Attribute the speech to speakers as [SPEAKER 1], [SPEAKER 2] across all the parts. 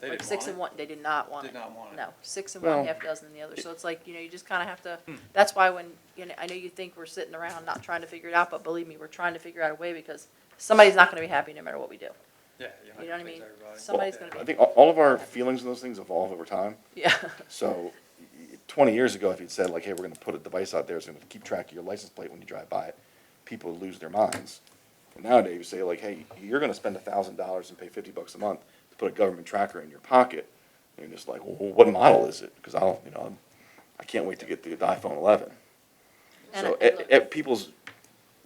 [SPEAKER 1] They
[SPEAKER 2] Like
[SPEAKER 1] didn't
[SPEAKER 2] six
[SPEAKER 1] want
[SPEAKER 2] and
[SPEAKER 1] it?
[SPEAKER 2] one, they did not want it.
[SPEAKER 1] Did not want it.
[SPEAKER 2] No, six and one,
[SPEAKER 3] Well-
[SPEAKER 2] half dozen in the other, so it's like, you know, you just kinda have to,
[SPEAKER 1] Hmm.
[SPEAKER 2] that's why when, you know, I know you think we're sitting around not trying to figure it out, but believe me, we're trying to figure out a way because somebody's not gonna be happy no matter what we do.
[SPEAKER 1] Yeah.
[SPEAKER 2] You know
[SPEAKER 1] you're
[SPEAKER 2] what I
[SPEAKER 1] not gonna please
[SPEAKER 2] mean?
[SPEAKER 1] everybody.
[SPEAKER 2] Somebody's
[SPEAKER 1] Yeah.
[SPEAKER 2] gonna be-
[SPEAKER 3] I think all- all of our feelings on those things evolve over time.
[SPEAKER 2] Yeah,
[SPEAKER 3] So y- twenty years ago, if you'd said like, hey, we're gonna put a device out there, that's gonna keep track of your license plate when you drive by it, people would lose their minds. And Nowadays, you say like, hey, you're gonna spend a thousand dollars and pay fifty bucks a month to put a government tracker in your pocket. And you're just like, well, what model is it? Cause I'll, you know, I'm- I can't wait to get the iPhone eleven.
[SPEAKER 2] And
[SPEAKER 3] So,
[SPEAKER 2] I-
[SPEAKER 3] at, at people's,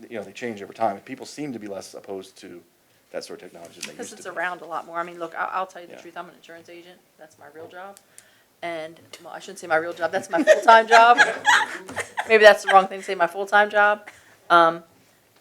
[SPEAKER 3] you know, they change over time, and people seem to be less opposed to that sort of technology than they used
[SPEAKER 2] cause
[SPEAKER 3] to be.
[SPEAKER 2] it's around a lot more. I mean, look, I'll, I'll tell you the
[SPEAKER 3] Yeah.
[SPEAKER 2] truth, I'm an insurance agent, that's my real job. And, well, I shouldn't say my real job, that's my full-time job. Maybe that's the wrong thing to say, my full-time job. Um,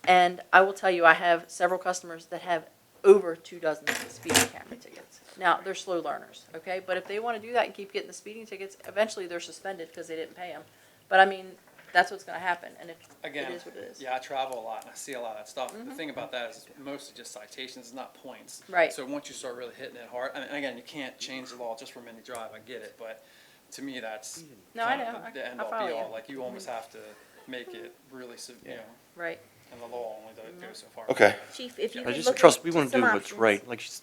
[SPEAKER 2] and I will tell you, I have several customers that have over two dozen speeding camera tickets. Now, they're slow learners, okay? But if they wanna do that and keep getting the speeding tickets, eventually they're suspended because they didn't pay them. But I mean, that's what's gonna happen, and it, it
[SPEAKER 1] Again,
[SPEAKER 2] is what it is. Mm-hmm.
[SPEAKER 1] yeah, I travel a lot and I see a lot of that stuff. The thing about that is it's mostly just citations, it's not points.
[SPEAKER 2] Right.
[SPEAKER 1] So once you start really hitting it hard, and again, you can't change the law just for mini drive, I get it, but to me, that's.
[SPEAKER 2] No, I
[SPEAKER 1] kind of
[SPEAKER 2] know. I-
[SPEAKER 1] The end
[SPEAKER 2] I
[SPEAKER 1] all
[SPEAKER 2] follow
[SPEAKER 1] be
[SPEAKER 2] you. Mm-hmm.
[SPEAKER 1] all, like you almost have to make it really, se- you know,
[SPEAKER 2] Right,
[SPEAKER 1] and the law only does-
[SPEAKER 2] Mm-hmm.
[SPEAKER 1] goes so far.
[SPEAKER 3] Okay,
[SPEAKER 4] Chief, if you
[SPEAKER 5] I
[SPEAKER 4] could
[SPEAKER 5] just
[SPEAKER 4] look
[SPEAKER 5] trust,
[SPEAKER 4] at
[SPEAKER 5] we want to
[SPEAKER 4] some
[SPEAKER 5] do what's
[SPEAKER 4] options.
[SPEAKER 5] right. Like she's,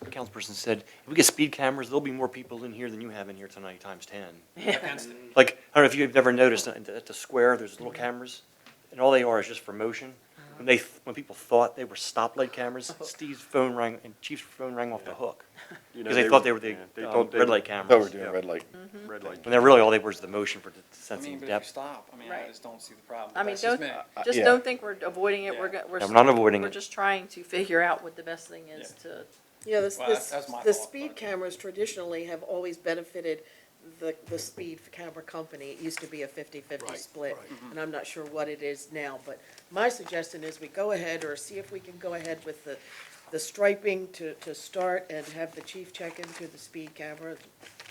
[SPEAKER 5] the councilperson said, if we get speed cameras, there'll be more people in here than you have in here tonight, times ten.
[SPEAKER 1] Against it.
[SPEAKER 5] Like, I don't know if you've ever noticed, at the at the square, there's little cameras, and all they are is just for motion. When they, when people thought they were stoplight cameras, Steve's phone rang, and Chief's phone rang off the hook. Because they thought they were the
[SPEAKER 6] yeah, they
[SPEAKER 5] um,
[SPEAKER 6] thought they
[SPEAKER 5] red
[SPEAKER 6] were-
[SPEAKER 5] light
[SPEAKER 3] I thought we were
[SPEAKER 5] cameras.
[SPEAKER 3] doing
[SPEAKER 6] Yeah.
[SPEAKER 3] red light.
[SPEAKER 6] Red light.
[SPEAKER 5] When they're really, all they were is the motion for
[SPEAKER 1] I
[SPEAKER 5] the
[SPEAKER 1] mean,
[SPEAKER 5] sensing
[SPEAKER 1] but if you
[SPEAKER 5] depth.
[SPEAKER 1] stop, I mean, I
[SPEAKER 2] Right.
[SPEAKER 1] just don't see the problem.
[SPEAKER 2] I
[SPEAKER 1] but
[SPEAKER 2] mean,
[SPEAKER 1] that's just
[SPEAKER 2] don't,
[SPEAKER 1] me.
[SPEAKER 2] just
[SPEAKER 3] yeah.
[SPEAKER 2] don't think we're avoiding it, we're,
[SPEAKER 1] Yeah.
[SPEAKER 2] go- we're.
[SPEAKER 5] I'm not avoiding
[SPEAKER 2] We're
[SPEAKER 5] it.
[SPEAKER 2] just trying to figure out what the best thing is to,
[SPEAKER 7] You know, this,
[SPEAKER 1] Well,
[SPEAKER 7] this,
[SPEAKER 1] that's- that's my
[SPEAKER 7] the
[SPEAKER 1] fault,
[SPEAKER 7] speed
[SPEAKER 1] but-
[SPEAKER 7] cameras traditionally have always benefited the, the speed camera company. It used to be a fifty-fifty split,
[SPEAKER 1] Mm-hmm.
[SPEAKER 7] and I'm not sure what it is now, but my suggestion is we go ahead or see if we can go ahead with the, the striping to, to start and have the chief check into the speed camera,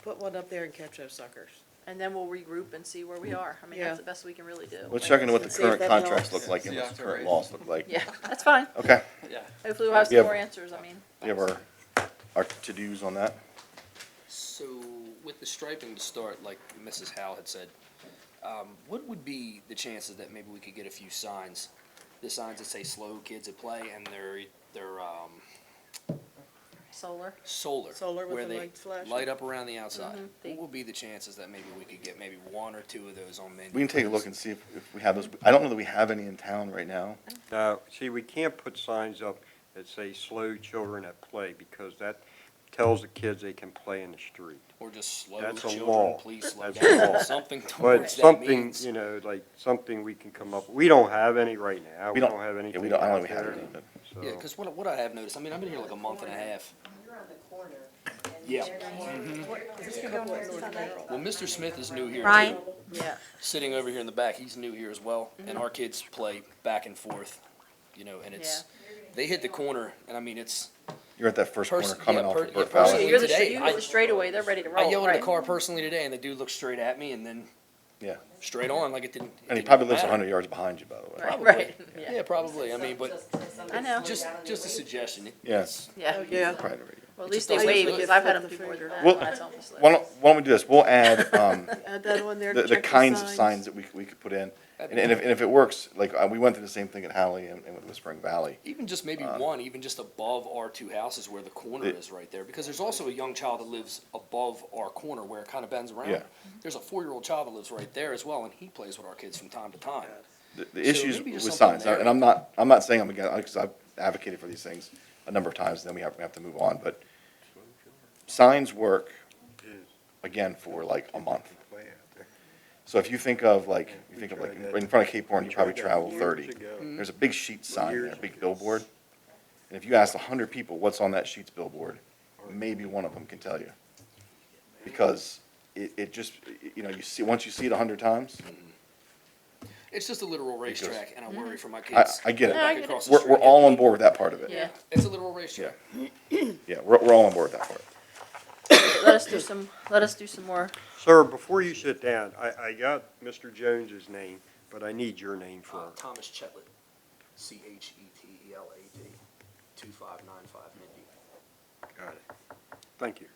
[SPEAKER 7] put one up there and catch those suckers.
[SPEAKER 2] and then we'll regroup and see where
[SPEAKER 3] Mm.
[SPEAKER 2] we are. I mean, that's
[SPEAKER 7] Yeah.
[SPEAKER 2] the best we can really do.
[SPEAKER 3] Let's
[SPEAKER 2] Like,
[SPEAKER 3] check into what the
[SPEAKER 7] Let's see if
[SPEAKER 3] current
[SPEAKER 7] that
[SPEAKER 3] contracts
[SPEAKER 7] helps.
[SPEAKER 3] look like and
[SPEAKER 1] Yeah,
[SPEAKER 3] what the current
[SPEAKER 1] right.
[SPEAKER 3] laws look like.
[SPEAKER 2] Yeah, that's fine.
[SPEAKER 3] Okay,
[SPEAKER 1] Yeah,
[SPEAKER 2] Hopefully we'll have
[SPEAKER 3] Yeah.
[SPEAKER 2] some more answers, I mean.
[SPEAKER 3] we have our, our to-dos on that.
[SPEAKER 8] So with the striping to start, like Mrs. Howe had said, um, what would be the chances that maybe we could get a few signs? The signs that say slow kids at play and they're, they're, um,
[SPEAKER 2] Solar,
[SPEAKER 8] solar.
[SPEAKER 7] Solar with
[SPEAKER 8] where
[SPEAKER 7] the
[SPEAKER 8] they
[SPEAKER 7] lights flashing?
[SPEAKER 8] Light up around the outside.
[SPEAKER 2] Mhm. They-
[SPEAKER 8] What would be the chances that maybe we could get maybe one or two of those on Main?
[SPEAKER 3] We can take a look and see if, if we have those. I don't know that we have any in town right now.
[SPEAKER 6] Now, see, we can't put signs up that say slow children at play because that tells the kids they can play in the street.
[SPEAKER 8] Or just slow
[SPEAKER 6] That's a
[SPEAKER 8] children,
[SPEAKER 6] law.
[SPEAKER 8] please slow
[SPEAKER 6] That's a law.
[SPEAKER 8] down, something
[SPEAKER 6] But
[SPEAKER 8] towards that
[SPEAKER 6] something,
[SPEAKER 8] means.
[SPEAKER 6] you know, like, something we can come up, we don't have any right now.
[SPEAKER 3] We
[SPEAKER 6] We
[SPEAKER 3] don't-
[SPEAKER 6] don't have
[SPEAKER 3] yeah, we
[SPEAKER 6] anything
[SPEAKER 3] don't- I don't
[SPEAKER 6] out
[SPEAKER 3] think we have
[SPEAKER 6] there.
[SPEAKER 3] any, but-
[SPEAKER 8] Yeah,
[SPEAKER 6] so-
[SPEAKER 8] cause what, what I have noticed, I mean, I've been here like a month and a half.
[SPEAKER 9] You're on the corner. and
[SPEAKER 8] Yeah.
[SPEAKER 9] they're going- There's a couple of North Mineral.
[SPEAKER 8] Well, Mr. Smith is new here too.
[SPEAKER 4] Ryan?
[SPEAKER 2] yeah.
[SPEAKER 8] sitting over here in the back, he's new here as well,
[SPEAKER 2] Mm-hmm.
[SPEAKER 8] and our kids play back and forth, you know, and it's, they hit the corner, and I mean, it's,
[SPEAKER 3] You're at that first corner
[SPEAKER 8] Person-
[SPEAKER 3] coming
[SPEAKER 8] yeah,
[SPEAKER 3] off
[SPEAKER 8] per-
[SPEAKER 3] of
[SPEAKER 8] yeah,
[SPEAKER 3] Burke
[SPEAKER 2] Yeah,
[SPEAKER 3] Valley.
[SPEAKER 8] person-
[SPEAKER 2] You're the,
[SPEAKER 8] Today,
[SPEAKER 2] you
[SPEAKER 8] I-
[SPEAKER 2] the straightaway, they're ready to roll,
[SPEAKER 8] I yelled at
[SPEAKER 2] right.
[SPEAKER 8] a car personally today, and the dude looked straight at me, and then
[SPEAKER 3] Yeah,
[SPEAKER 8] straight on, like it didn't. it
[SPEAKER 3] and he
[SPEAKER 8] didn't
[SPEAKER 3] probably lives
[SPEAKER 8] matter.
[SPEAKER 3] hundred yards behind you, by the way.
[SPEAKER 2] Right,
[SPEAKER 8] Probably.
[SPEAKER 2] right, yeah,
[SPEAKER 8] Yeah, probably, I mean, but
[SPEAKER 9] Just- just somebody
[SPEAKER 2] I know.
[SPEAKER 9] slow
[SPEAKER 8] just,
[SPEAKER 9] down and
[SPEAKER 8] just a
[SPEAKER 9] wait.
[SPEAKER 8] suggestion.
[SPEAKER 3] Yes.
[SPEAKER 2] yeah.
[SPEAKER 7] Yeah.
[SPEAKER 3] Probably already.
[SPEAKER 2] Well, at
[SPEAKER 8] It
[SPEAKER 2] least
[SPEAKER 8] just
[SPEAKER 2] they
[SPEAKER 8] doesn't
[SPEAKER 2] wave,
[SPEAKER 8] look-
[SPEAKER 2] because I've had them
[SPEAKER 7] Flip the
[SPEAKER 2] before, they're
[SPEAKER 7] finger.
[SPEAKER 2] not,
[SPEAKER 3] Well-
[SPEAKER 2] that's almost
[SPEAKER 3] Why
[SPEAKER 2] like.
[SPEAKER 3] don't, why don't we do this? We'll add, um,
[SPEAKER 7] Add that on there,
[SPEAKER 3] the, the
[SPEAKER 7] check
[SPEAKER 3] kinds of signs that we, we could put in. And, and if, and if it works, like, uh, we went through the same thing at Halley and, and with Whispering Valley.
[SPEAKER 8] Even just maybe one, even just above our two houses where the corner
[SPEAKER 3] Um, It-
[SPEAKER 8] is right there, because there's also a young child that lives above our corner where it kind of bends
[SPEAKER 3] Yeah.
[SPEAKER 8] around. There's a four-year-old child that lives right there as well, and he plays with our kids from time to time.
[SPEAKER 3] The, the
[SPEAKER 8] So
[SPEAKER 3] issues
[SPEAKER 8] maybe
[SPEAKER 3] with
[SPEAKER 8] just something
[SPEAKER 3] signs,
[SPEAKER 8] there.
[SPEAKER 3] and I'm not, I'm not saying I'm against, because I've advocated for these things a number of times, and then we have, we have to move on, but signs work, again, for like a month. So if you think of like, you think of like, in front of Cape Horn, you probably travel thirty.
[SPEAKER 8] Mm-hmm.
[SPEAKER 3] There's a big sheet sign there, a big billboard. And if you ask a hundred people what's on that sheet's billboard, maybe one of them can tell you. Because it, it just, you know, you see, once you see it a hundred times,
[SPEAKER 8] It's just a literal
[SPEAKER 3] It goes-
[SPEAKER 8] racetrack, and I worry for my
[SPEAKER 3] I,
[SPEAKER 8] kids.
[SPEAKER 3] I get
[SPEAKER 2] Yeah, Mm-hmm. I
[SPEAKER 8] back
[SPEAKER 2] get
[SPEAKER 3] it.
[SPEAKER 2] it.
[SPEAKER 8] across the
[SPEAKER 3] We're, we're
[SPEAKER 8] street.
[SPEAKER 3] all on board with that part of it.
[SPEAKER 2] Yeah,
[SPEAKER 8] It's a literal racetrack.
[SPEAKER 3] Yeah, we're, we're all on board with that part.
[SPEAKER 2] let us do some, let us do some more,
[SPEAKER 6] Sir, before you sit down, I, I got Mr. Jones's name, but I need your name for
[SPEAKER 8] Uh, Thomas Chetlet, C H E T E L A D, two five nine five Mindy.
[SPEAKER 6] Got it. Thank you.